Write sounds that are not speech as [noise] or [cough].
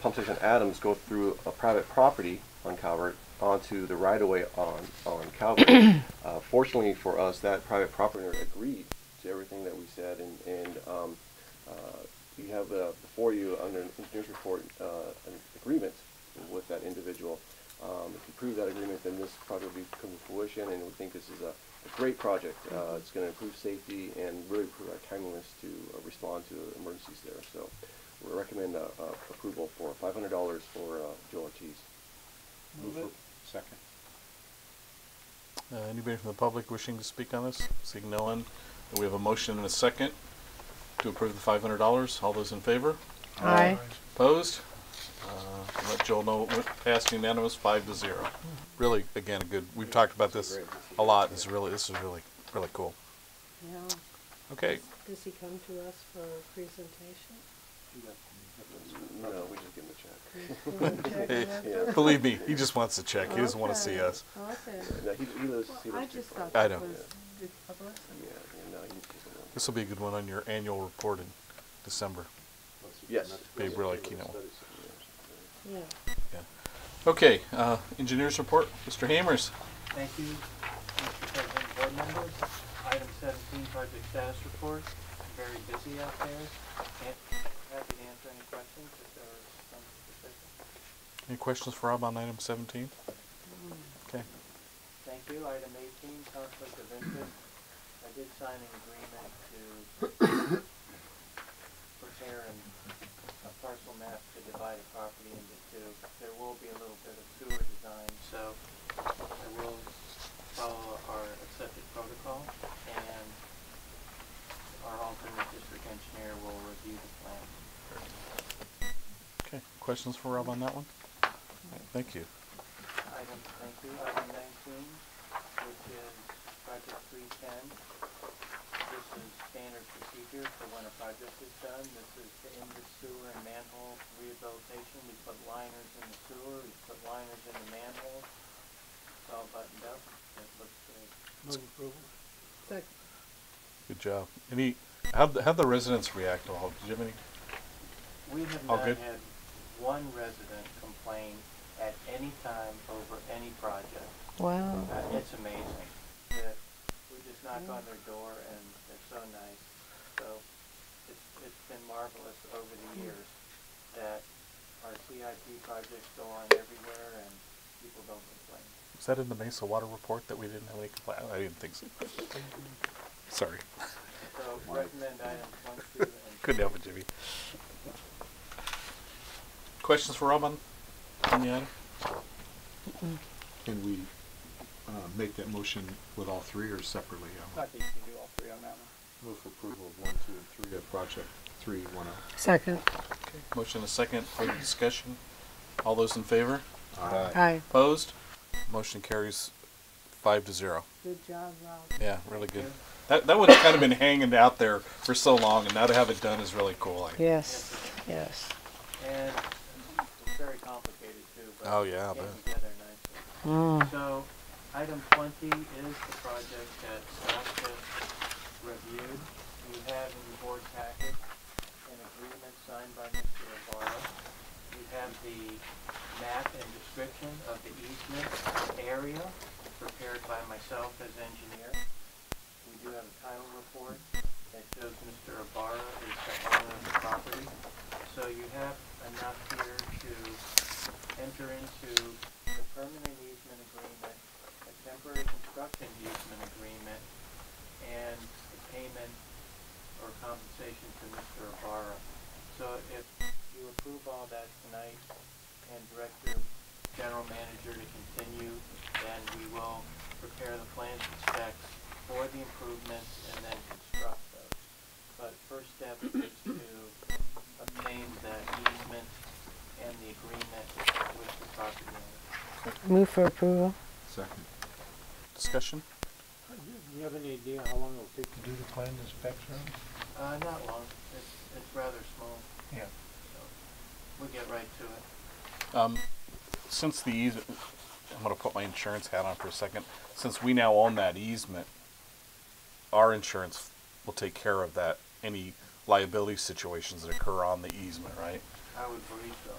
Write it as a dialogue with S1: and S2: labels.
S1: pump station Adams go through a private property on Calvert onto the right of way on, on Calvert. uh, fortunately for us, that private property owner agreed to everything that we said and, and um, uh, you have uh, before you under an engineer's report uh, an agreement with that individual. Um, if you prove that agreement, then this project will be come to fruition, and we think this is a, a great project. Uh, it's going to improve safety and really improve our timeliness to uh, respond to the emergencies there. So, we recommend uh, uh, approval for five hundred dollars for uh, Joel Ortiz.
S2: Move it. Second.
S3: Uh, Anybody from the public wishing to speak on this? Seeing no one, we have a motion and a second to approve the five hundred dollars. All those in favor?
S4: Aye.
S3: Opposed? Uh, Let Joel know, it went passed unanimous, five to zero. Really, again, a good, we've talked about this a lot. It's really, this is really, really cool.
S5: Now,
S3: Okay, [laughs]
S5: does he come to us for a presentation?
S1: No, we just give him a check.
S3: [laughs] believe me, he just wants to check. He doesn't want to see
S5: Okay.
S3: us.
S5: Okay.
S1: No, he, he lives. he
S5: Well, I
S1: lives too
S5: just
S1: far.
S5: thought
S3: I
S5: that
S3: know.
S5: was the publicity.
S1: Yeah, yeah, no, he's just a little-
S3: This will be a good one on your annual report in December.
S1: Yes.
S3: Be really keen on one.
S5: Yeah.
S3: Yeah. Okay, uh, engineers report, Mr. Hammers.
S6: Thank you, Mr. President, board members. Item seventeen, project status report. Very busy out there. And happy to answer any questions if there are some specific.
S3: Any questions for Rob on item seventeen? Okay.
S6: Thank you. Item eighteen, conflict of interest. I did sign an agreement to prepare an, a parcel map to divide a property into two. There will be a little bit of sewer design, so I will follow our accepted protocol and our alternate district engineer will review the plan.
S3: Okay, questions for Rob on that one? Alright, Thank you.
S6: Item, thank you, item nineteen, which is project three ten. This is standard procedure for when a project is done. This is to end the sewer and manhole rehabilitation. We put liners in the sewer, we put liners in the manhole. It's all buttoned up. It looks good.
S5: So,
S3: Good job. Any, how'd, the- how'd the residents react to all, did you have any?
S6: We have
S3: All
S6: not
S3: good?
S6: had one resident complain at any time over any project.
S4: Wow.
S6: Uh, It's amazing. that We just knock on their door and they're so nice. So it's, it's been marvelous over the years that our CIP projects go on everywhere and people don't complain.
S3: Was that in the Mesa Water report that we didn't have any complaint? I didn't think so. Sorry,
S6: So recommend items one, two, and three.
S3: couldn't help it, Jimmy. Questions for Rob on, on the item?
S2: Can we uh, make that motion with all three or separately? I
S7: I think you can do all three on that one.
S2: Move for approval of one, two, and three of project three, one oh.
S4: Second.
S3: Motion a second, further discussion? All those in favor?
S4: Aye.
S3: Opposed? Motion carries five to zero.
S5: Good job, Rob.
S3: Yeah, really good. That, that one's kind of been hanging out there for so long, and now to have it done is really cool. I-
S4: Yes. Yes.
S6: And it's very complicated too, but.
S3: Oh, yeah, I
S6: Came
S3: bet.
S6: together nicely.
S4: Mm.
S6: So, item twenty is the project that Scott just reviewed. You have in your board packet an agreement signed by Mr. Ibarra. You have the map and description of the easement area prepared by myself as engineer. We do have a title report that shows Mr. Ibarra is the owner of the property. So you have enough here to enter into the permanent easement agreement, a temporary construction easement agreement, and the payment or compensation to Mr. Ibarra. So if you approve all that tonight and direct your general manager to continue, then we will prepare the plans and specs for the improvements and then construct those. But first step is to obtain the easement and the agreement with the property owner.
S4: Move for approval.
S2: Second.
S3: Discussion?
S7: Do you have any idea how long it'll take to do the planned inspection?
S6: Uh, not long, it's, it's rather small,
S7: Yeah.
S6: so we'll get right to it.
S3: Um, since the easement, I'm going to put my insurance hat on for a second. Since we now own that easement, our insurance will take care of that, any liability situations that occur on the easement, right?
S6: I would believe so.